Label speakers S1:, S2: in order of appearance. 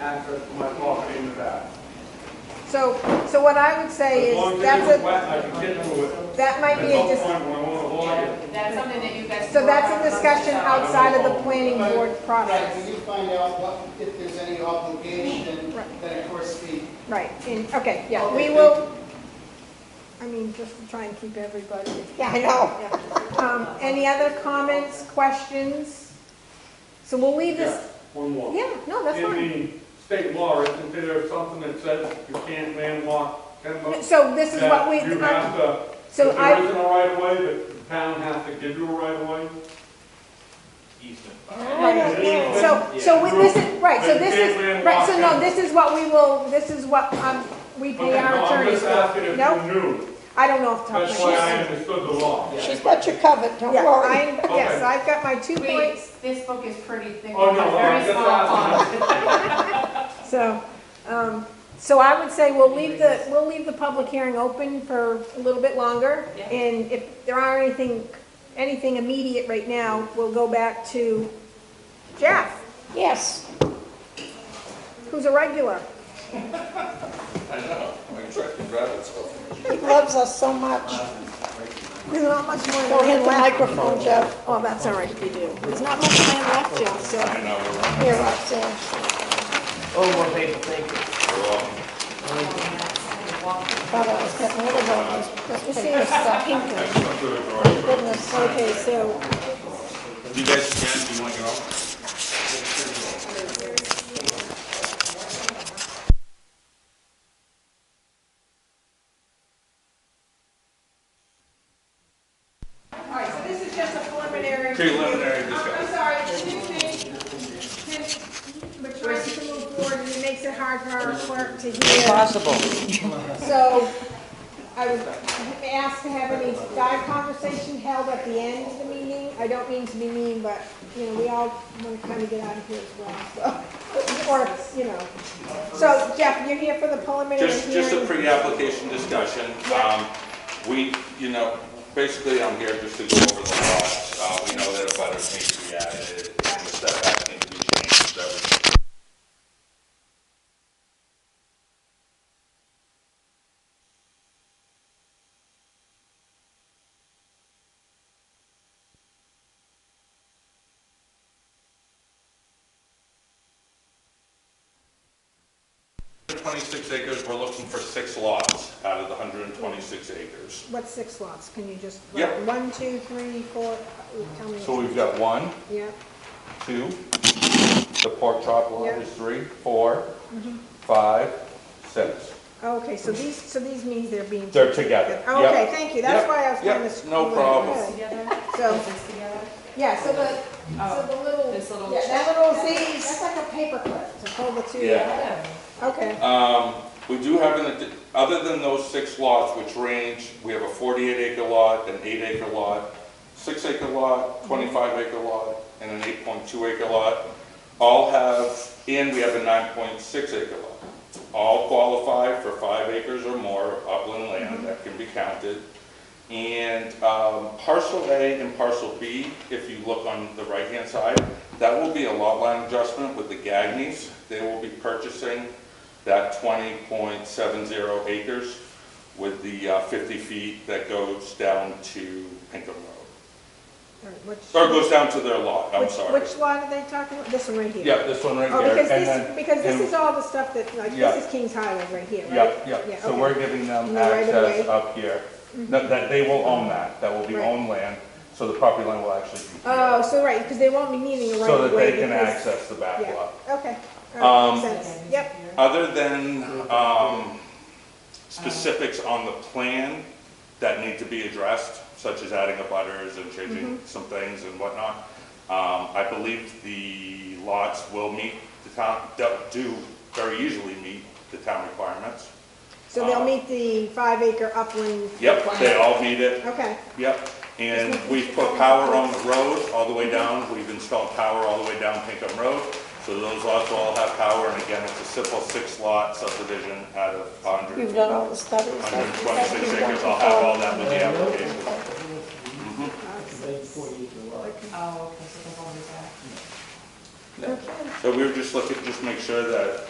S1: access to my property in the back.
S2: So, so what I would say
S1: As long
S2: is,
S1: as
S2: that's
S1: it's
S2: a,
S1: wet, I can get to it.
S2: that might be a,
S1: At some
S2: dis-
S1: point when I wanna log it.
S3: That's something that you guys.
S2: so that's a discussion
S3: out.
S2: outside of the planning board
S4: Right,
S2: process.
S4: when you find out what, if there's any obligation,
S2: Right.
S4: then of course the.
S2: Right, and, okay, yeah, we
S4: Okay,
S2: will, I mean, just to try and keep everybody. Yeah, I know. Um, any other comments, questions? So we'll leave
S1: Yeah,
S2: this,
S1: one more.
S2: yeah, no, that's fine.
S1: In the state law, isn't there something that says you can't landlock ten bucks?
S2: So this is what we,
S1: You have to, if
S2: so
S1: there
S2: I,
S1: isn't a right of way, the town has to give you a right of way.
S5: easement.
S2: Right.
S1: Easement.
S2: so, so we- this is, right, so this
S1: But you
S2: is,
S1: can't
S2: right, so no,
S1: landlock
S2: this is what we will, this is what, um, we
S1: Okay,
S2: pay
S1: no,
S2: our
S1: I'm
S2: attorneys
S1: just asking
S2: for.
S1: if
S2: No,
S1: you knew,
S2: I don't know off the top
S1: that's
S2: of
S1: why
S2: my
S1: I
S2: head.
S1: understood the law.
S6: She's got you covered, don't
S2: Yeah,
S6: worry.
S2: I, yes,
S1: Okay.
S2: I've got my two
S3: We,
S2: points,
S3: this book is pretty thick,
S1: Oh, no,
S3: but very
S1: I'm just
S3: small font.
S1: asking.
S2: so, um, so I would say we'll leave the, we'll leave the public hearing open for a little bit longer.
S3: Yeah.
S2: And if there are anything, anything immediate right now, we'll go back to Jeff,
S6: Yes,
S2: who's a regular.
S7: I know, my truck can drive itself.
S6: he loves us so much.
S7: Uh,
S2: There's not much more
S6: Go
S2: land
S6: hit the
S2: left.
S6: microphone, Jeff.
S2: Oh, that's all right, you do. There's not much land left, Jeff, so.
S7: I know, we're on.
S6: Here, Roxanne.
S5: Oh, more paper, thank you.
S6: Thought I was getting rid of all these, this
S2: Let's see,
S6: paper stuff.
S2: goodness, okay, so,
S7: You guys can, do you want to go?
S2: all right, so this is just a preliminary. review.
S7: Preliminary
S2: I'm- I'm
S7: discussion.
S2: sorry, excuse me. Can- We're trying to move forward, and it makes it hard for our clerk to hear.
S6: Possible.
S2: So I was asked to have any dive conversation held at the end of the meeting. I don't mean to be mean, but, you know, we all want to kind of get out of here as well, so. Or, you know. So Jeff, you're here for the preliminary
S7: Just,
S2: hearing.
S7: just a pre-application discussion.
S2: Yeah.
S7: Um, We, you know, basically, I'm here just to go over the lots. Uh, We know that a butter needs to be added, and the setback needs to be changed, that was twenty-six acres, we're looking for six lots out of the hundred and twenty-six acres.
S2: What's six lots? Can you just,
S7: Yep.
S2: one, two, three, four, tell me.
S7: So we've got one,
S2: Yeah,
S7: two, the pork chop lot
S2: Yeah. Mm-hmm.
S7: is three, four, five, six.
S2: Oh, okay, so these, so these means they're being.
S7: They're together.
S2: Oh,
S7: Yep.
S2: Okay, thank you, that's
S7: Yep.
S2: why I was
S7: Yep.
S2: trying to.
S7: No problem.
S2: Okay.
S3: Together,
S2: So,
S3: this together.
S2: yeah, so the, so the little.
S7: uh,
S3: This little
S2: Yeah, that
S3: check.
S2: little Z, that's like a paperclip to hold the two.
S7: Yeah.
S2: Okay,
S7: Um, we do have, an addi- other than those six lots which range, we have a forty-eight acre lot, an eight acre lot, six acre lot, twenty-five acre lot, and an eight point two acre lot. All have, and we have a nine point six acre lot. All qualify for five acres or more of upland land that can be counted. And um, parcel A and parcel B, if you look on the right-hand side, that will be a lot line adjustment with the Gagneys. They will be purchasing that 20.70 acres with the uh, 50 feet that goes down to Pinkham Road.
S2: All right, which.
S7: Or goes down to their lot, I'm
S2: which-
S7: sorry.
S2: Which lot are they talking about? This one right here?
S7: Yeah, this one right
S2: Oh,
S7: there.
S2: because
S7: and
S2: this,
S7: then-
S2: because this
S7: and-
S2: is all the stuff that, like,
S7: Yeah.
S2: this is King's Highway right here, right?
S7: Yep, yep, so
S2: okay.
S7: we're giving
S2: In
S7: them
S2: the right of
S7: access
S2: way. Mm-hmm.
S7: up here, No, that they will own that, that will be
S2: Right.
S7: owned land, so the property line will actually be
S2: Oh,
S7: here,
S2: so right, because they won't be needing a right
S7: so
S2: of
S7: that
S2: way.
S7: they can
S2: because-
S7: access the back
S2: Yeah,
S7: lot.
S2: okay. All right,
S7: Um,
S2: makes sense. Yep.
S7: Other than um, specifics on the plan that need to be addressed, such as adding a butters and changing some things and whatnot, um, I believe the lots will meet the town, do very easily meet the town requirements.
S2: So they'll meet the five acre upland.
S7: um, Yep, they all meet it.
S2: Okay,
S7: Yep, and we've put power on the road all the way down, we've installed power all the way down Pinkham Road. So those lots will all have power, and again, it's a simple six lot subdivision out of
S6: You've
S7: 100
S6: done all the studies. like you said
S7: 126
S6: you've
S7: acres,
S6: done
S7: I'll have all
S6: before.
S7: that with the application.
S3: Oh, okay, so they're going to do that.
S6: Okay.
S7: So we were just looking, just make sure that